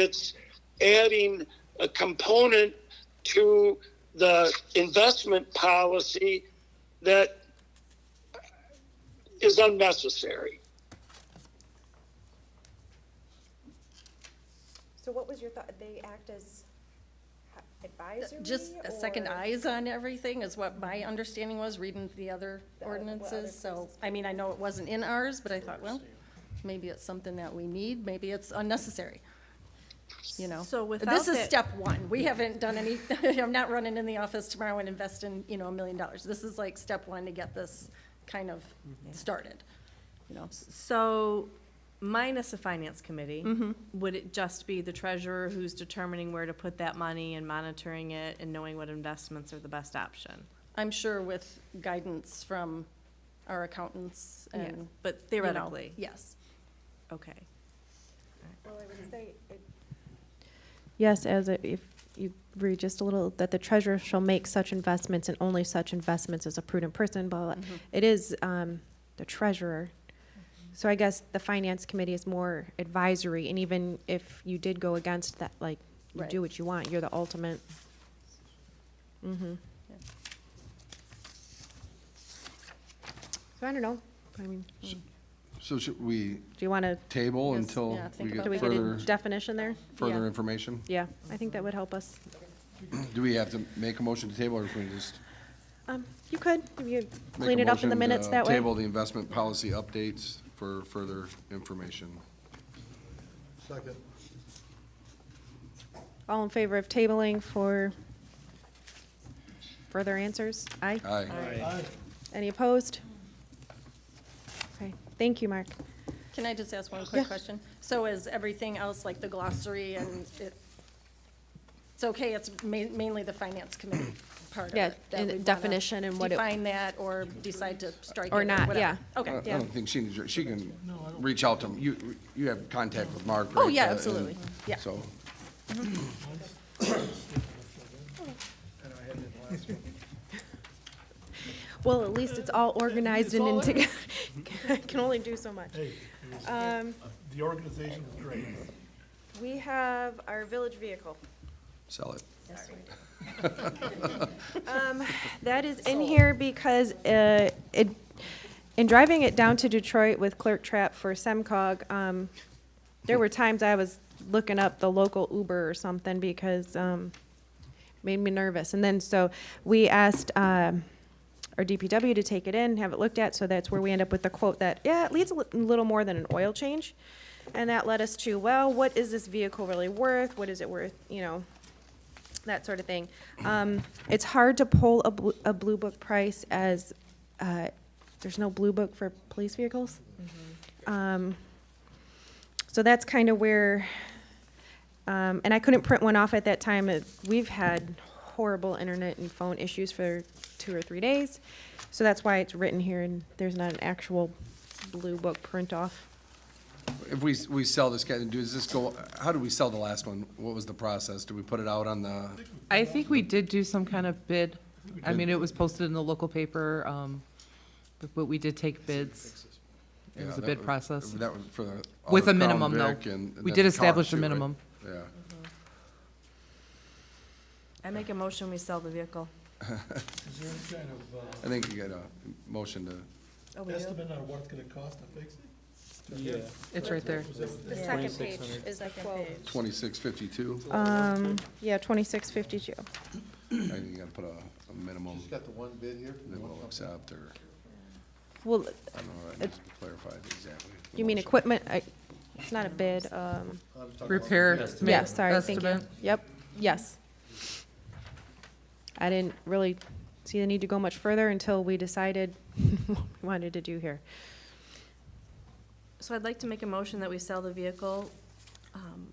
it's adding a component to the investment policy that is unnecessary. So what was your thought, they act as advisory? Just a second or- eyes on everything is what my understanding was, reading the other The other- well, other ordinances, so, places. I mean, I know it wasn't in ours, but I thought, well, maybe it's something that we need, maybe it's unnecessary, you know? So without This is that- step one, we haven't done any, I'm not running in the office tomorrow and investing, you know, a million dollars. This is like step one to get this kind of started, you know? So minus a finance committee, would it just be the treasurer who's determining where to put that money and monitoring it and knowing what investments are the best option? I'm sure with guidance from our accountants and, you know, But theoretically, Yes. okay. Well, I would say, it- Yes, as a- if you read just a little, that the treasurer shall make such investments and only such investments as a prudent person, blah, blah. blah. It is um, the treasurer. So I guess the finance committee is more advisory, and even if you did go against that, like, you Right. do what you want, you're the ultimate. Mhm. Yeah. So I don't know, I mean, do So should we you want to, table Yes, until yeah, think we about get do we get a further, definition there? further yeah. information? Yeah, I think that would help us. Do we have to make a motion to table, or can we just? Um, You could, if you make clean a it up in the motion to minutes that way. Table the investment policy updates for further information. Second. All in favor of tabling for further answers? Aye. Aye. Aye. Any opposed? Okay, thank you, Mark. Can I just ask one quick question? So is everything else, like the glossary and it, it's okay, it's ma- mainly the finance committee part of Yeah, it? that and we wanna definition and what it- Define that or decide to strike it Or or not, whatever? yeah. I I Okay, don't think she needs, your- she can reach out to, him. you, you have contact with Mark, Oh, right? yeah, Uh, and absolutely. Yeah. So, And I had it last one. Well, at least it's all organized and in together. Can only do so much. Um, Hey, it was- the organization was great. We have our village vehicle. sell it. That is in here because uh, it, in driving it down to Detroit with Clerk Trap for SEMCOG, um, there were times I was looking up the local Uber or something because um, it made me nervous. And then, so we asked um, our DPW to take it in, have it looked at, so that's where we end up with the quote that, yeah, it leads a li- little more than an oil change. And that led us to, well, what is this vehicle really worth? What is it worth, you know, that sort of thing. Um, it's hard to pull a, bl- a blue book price as uh, there's no blue book for police vehicles. Um, so that's kind of where, um, and I couldn't print one off at that time. It- We've had horrible internet and phone issues for two or three days. So that's why it's written here and there's not an actual blue book print off. If we, we sell this, guy, does this go, how do we sell the last one? What was the process? Do we put it out on the, I think we did do some kind of bid. I mean, it was posted in the local paper, um, but- but we did take bids. It was Yeah, a that bid process. That was for the. With other a minimum, Crown though. Vic and- and We then did the establish car, a too, right? minimum. Yeah. I make a motion, we sell the vehicle. Is there any kind of uh, I think you got a motion to, Oh, we do? estimate on what it's gonna cost to fix it? Yeah, It's right there. the second page is the quote. twenty-six fifty-two, Um, yeah, twenty-six fifty-two. I think you gotta put a, a minimum just got the one bid here from the that one we'll company. accept, or, Well, I don't know, that needs to be clarified exactly. The you mean motion. equipment? I, it's not a bid. Um, I was talking about- Repair. Yeah, sorry, thank you. estimate. Yep, yes. I didn't really see the need to go much further until we decided what we wanted to do here. So I'd like to make a motion that we sell the vehicle, um,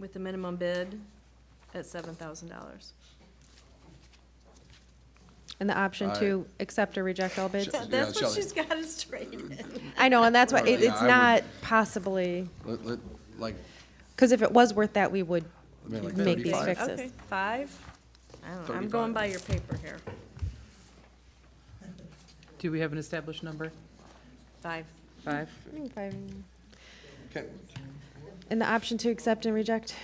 with the minimum bid at seven thousand dollars. And the option to accept or reject all bids. Sure. Yeah, That's what Shelley. she's got us traded. I know, and that's why, it- Yeah, it's I would- not possibly, Let, let, like, because if it was worth that, we would I mean, like Make these thirty-five. fixed. Fixes. Okay, five? I don't know, I'm going by your paper here. Do we have an established number? Five. Five? I think five- Can, And the option to accept and reject.